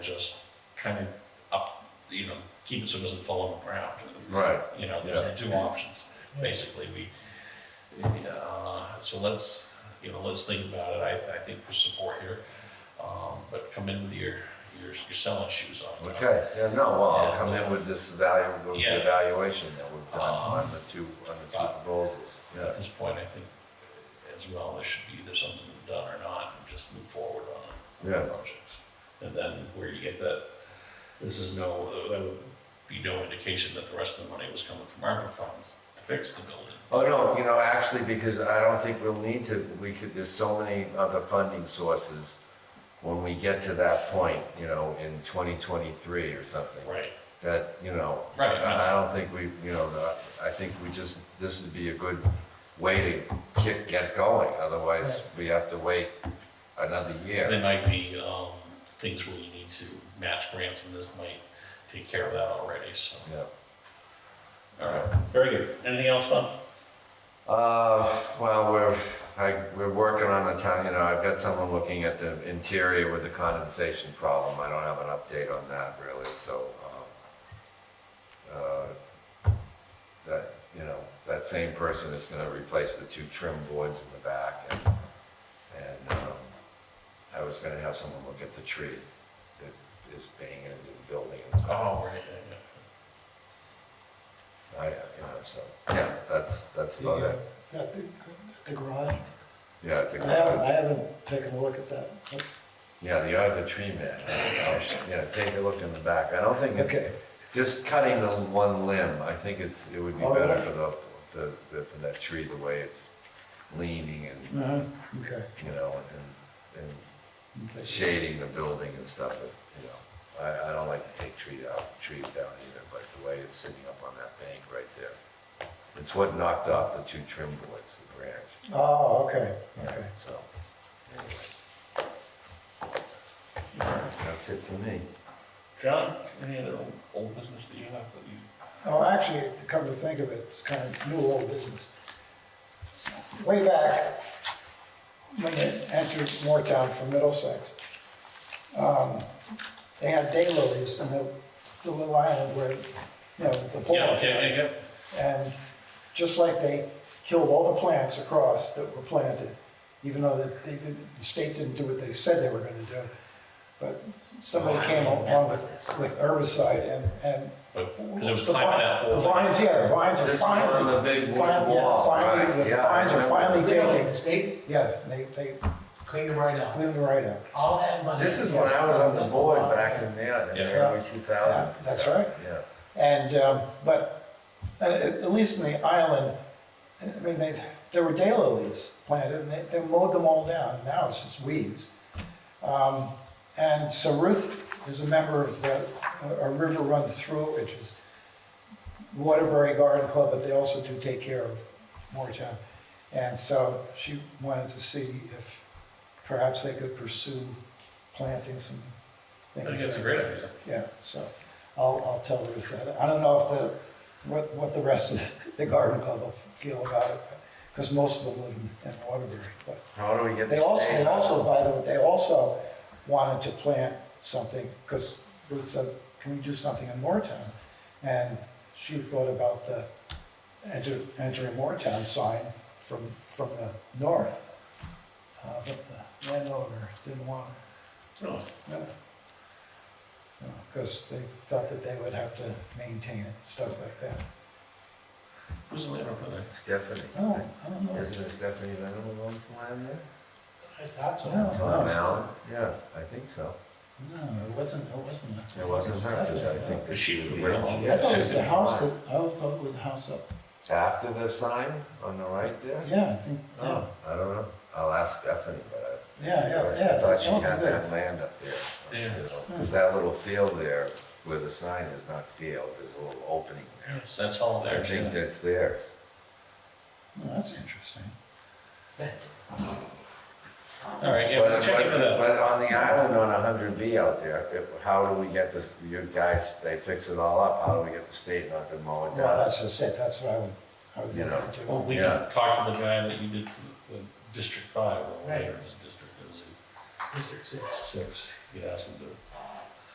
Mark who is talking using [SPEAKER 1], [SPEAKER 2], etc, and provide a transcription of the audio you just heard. [SPEAKER 1] kind of up, you know, keep it so it doesn't fall on the ground.
[SPEAKER 2] Right.
[SPEAKER 1] You know, there's the two options, basically, we, uh, so let's, you know, let's think about it, I, I think for support here. Um, but come in with your, your, your selling shoes on. Tom.
[SPEAKER 2] Okay, yeah, no, well, I'll
[SPEAKER 1] Yeah.
[SPEAKER 2] come in with this valuable
[SPEAKER 1] Yeah.
[SPEAKER 2] evaluation that we've done
[SPEAKER 1] Um,
[SPEAKER 2] on the two, on the two
[SPEAKER 1] uh,
[SPEAKER 2] proposals. Yeah,
[SPEAKER 1] At this point, I think as well, there should be either something done or not, and just move forward on
[SPEAKER 2] Yeah.
[SPEAKER 1] the projects. And then where you get that, this is no, that would be no indication that the rest of the money was coming from ARPA funds to fix the building.
[SPEAKER 2] oh, no, you know, actually, because I don't think we'll need to, we could, there's so many other funding sources when we get to that point, you know, in twenty twenty-three or something,
[SPEAKER 1] Right,
[SPEAKER 2] that, you know,
[SPEAKER 1] right,
[SPEAKER 2] I
[SPEAKER 1] no,
[SPEAKER 2] I don't think we, you know, I think we just, this would be a good way to get, get going, otherwise we have to wait another year.
[SPEAKER 1] there might be, um, things where you need to match grants, and this might take care of that already, so.
[SPEAKER 2] Yeah.
[SPEAKER 1] All right, very good, anything else, Tom?
[SPEAKER 2] Uh, well, we're, I, we're working on the town, you know, I've got someone looking at the interior with the condensation problem, I don't have an update on that really, so, um, uh, that, you know, that same person is gonna replace the two trim boards in the back and, and, um, I was gonna have someone look at the tree that is banging into the building in the back.
[SPEAKER 1] Oh, right, yeah, yeah.
[SPEAKER 2] I, you know, so, yeah, that's, that's
[SPEAKER 3] The,
[SPEAKER 2] about
[SPEAKER 3] uh,
[SPEAKER 2] it,
[SPEAKER 3] At the, at the garage.
[SPEAKER 2] yeah, I think.
[SPEAKER 3] I haven't, I haven't taken a look at that.
[SPEAKER 2] Yeah, the other tree man. Yeah, take a look in the back. I don't think it's,
[SPEAKER 3] Okay.
[SPEAKER 2] just cutting the one limb, I think it's, it would be
[SPEAKER 3] Oh,
[SPEAKER 2] better
[SPEAKER 3] really?
[SPEAKER 2] for the, the, the- for that tree, the way it's leaning and,
[SPEAKER 3] Uh-huh, okay.
[SPEAKER 2] you know, and,
[SPEAKER 3] okay.
[SPEAKER 2] and shading the building and stuff, but, you know, I, I don't like to take tree out, trees down either, but the way it's sitting up on that bank right there. It's what knocked off the two trim boards, the branch.
[SPEAKER 3] Oh, okay, okay.
[SPEAKER 2] So, anyways. That's it for me.
[SPEAKER 1] John, any other old- old business that you have that you?
[SPEAKER 3] Oh, actually, to come to think of it, it's kind of new old business. Way back, when you entered Moretown from Middlesex, um, they had daylilies in the, the little island where, you know, the pool.
[SPEAKER 1] yeah,
[SPEAKER 3] And just like they killed all the plants across that were planted, even though that they didn't, the state didn't do what they said they were gonna do. But somebody came along with, with herbicide and, and.
[SPEAKER 1] But, because it was
[SPEAKER 3] the
[SPEAKER 1] climbing
[SPEAKER 3] vine-
[SPEAKER 1] that whole
[SPEAKER 3] The
[SPEAKER 1] thing.
[SPEAKER 3] vines, yeah, the vines are
[SPEAKER 2] This one on
[SPEAKER 3] finally.
[SPEAKER 2] the big wood
[SPEAKER 3] finally- yeah,
[SPEAKER 2] wall,
[SPEAKER 3] finally-
[SPEAKER 2] right,
[SPEAKER 3] The
[SPEAKER 2] yeah, I
[SPEAKER 3] vines are
[SPEAKER 2] remember.
[SPEAKER 3] finally
[SPEAKER 4] Really,
[SPEAKER 3] taking,
[SPEAKER 4] state
[SPEAKER 3] yeah, they, they
[SPEAKER 4] cleaned it right out.
[SPEAKER 3] cleaned it right up.
[SPEAKER 4] All that money.
[SPEAKER 2] This is when I was on the board back in the, in the
[SPEAKER 1] Yeah.
[SPEAKER 2] early two thousands.
[SPEAKER 3] Yeah, that's right.
[SPEAKER 2] Yeah,
[SPEAKER 3] And, um, but, uh, at at least in the island, I mean, they, there were daylilies planted, and they, they mowed them all down, and now it's just weeds. Um, and so Ruth is a member of the, a a river runs through it, which is Waterbury Garden Club, but they also do take care of Moretown. And so she wanted to see if perhaps they could pursue planting some
[SPEAKER 1] I
[SPEAKER 3] things.
[SPEAKER 1] think that's a great idea.
[SPEAKER 3] Yeah, so I'll, I'll tell Ruth that. I don't know if the, what, what the rest of the garden club will feel about it, because most of them live in- in Waterbury, but.
[SPEAKER 2] how do we get
[SPEAKER 3] They
[SPEAKER 2] this?
[SPEAKER 3] also,
[SPEAKER 2] state-
[SPEAKER 3] they also, by the way, they also wanted to plant something, because Ruth said, can we do something in Moretown? And she thought about the enter, entering Moretown sign from, from the north. Uh, but the landowner didn't want it,
[SPEAKER 1] No,
[SPEAKER 3] no. Because they felt that they would have to maintain it, and stuff like that.
[SPEAKER 1] who's the landowner there?
[SPEAKER 2] Stephanie.
[SPEAKER 3] Oh, I don't know.
[SPEAKER 2] Isn't it Stephanie Lennon who owns the land there?
[SPEAKER 4] I thought so.
[SPEAKER 3] Yeah.
[SPEAKER 2] It's on Allen, yeah, I think so.
[SPEAKER 3] No, it wasn't, it wasn't.
[SPEAKER 2] It wasn't her, 'cause I think.
[SPEAKER 1] Because she was
[SPEAKER 2] Yeah,
[SPEAKER 1] around.
[SPEAKER 2] it's-
[SPEAKER 3] I thought it was
[SPEAKER 2] Yeah,
[SPEAKER 3] the house
[SPEAKER 2] fine.
[SPEAKER 3] that, I thought it was the house up,
[SPEAKER 2] After the sign on the right there?
[SPEAKER 3] yeah, I think, yeah.
[SPEAKER 2] Oh, I don't know, I'll ask Stephanie, but I.
[SPEAKER 3] Yeah, yeah, yeah.
[SPEAKER 2] I thought she
[SPEAKER 3] that'd
[SPEAKER 2] had
[SPEAKER 3] be good.
[SPEAKER 2] that land up there.
[SPEAKER 1] Yeah.
[SPEAKER 2] Because that little field there, where the sign is not field, there's a little opening there.
[SPEAKER 1] Yes, that's all
[SPEAKER 2] I
[SPEAKER 1] there.
[SPEAKER 2] think that's theirs.
[SPEAKER 3] Well, that's interesting.
[SPEAKER 1] All right, yeah,
[SPEAKER 2] But-
[SPEAKER 1] we'll check
[SPEAKER 2] but-
[SPEAKER 1] into that.
[SPEAKER 2] But on the island on hundred B out there, if- how do we get this, you guys, they fix it all up, how do we get the state not to mow it
[SPEAKER 3] Well,
[SPEAKER 2] down?
[SPEAKER 3] that's just it, that's what I would, I would
[SPEAKER 2] You
[SPEAKER 3] get
[SPEAKER 2] know.
[SPEAKER 3] back
[SPEAKER 1] Well,
[SPEAKER 3] to.
[SPEAKER 1] Oh, we
[SPEAKER 2] Yeah.
[SPEAKER 1] can talk to the guy that you did for the District Five, or whatever his district is,
[SPEAKER 4] District six.
[SPEAKER 1] six, you could ask him to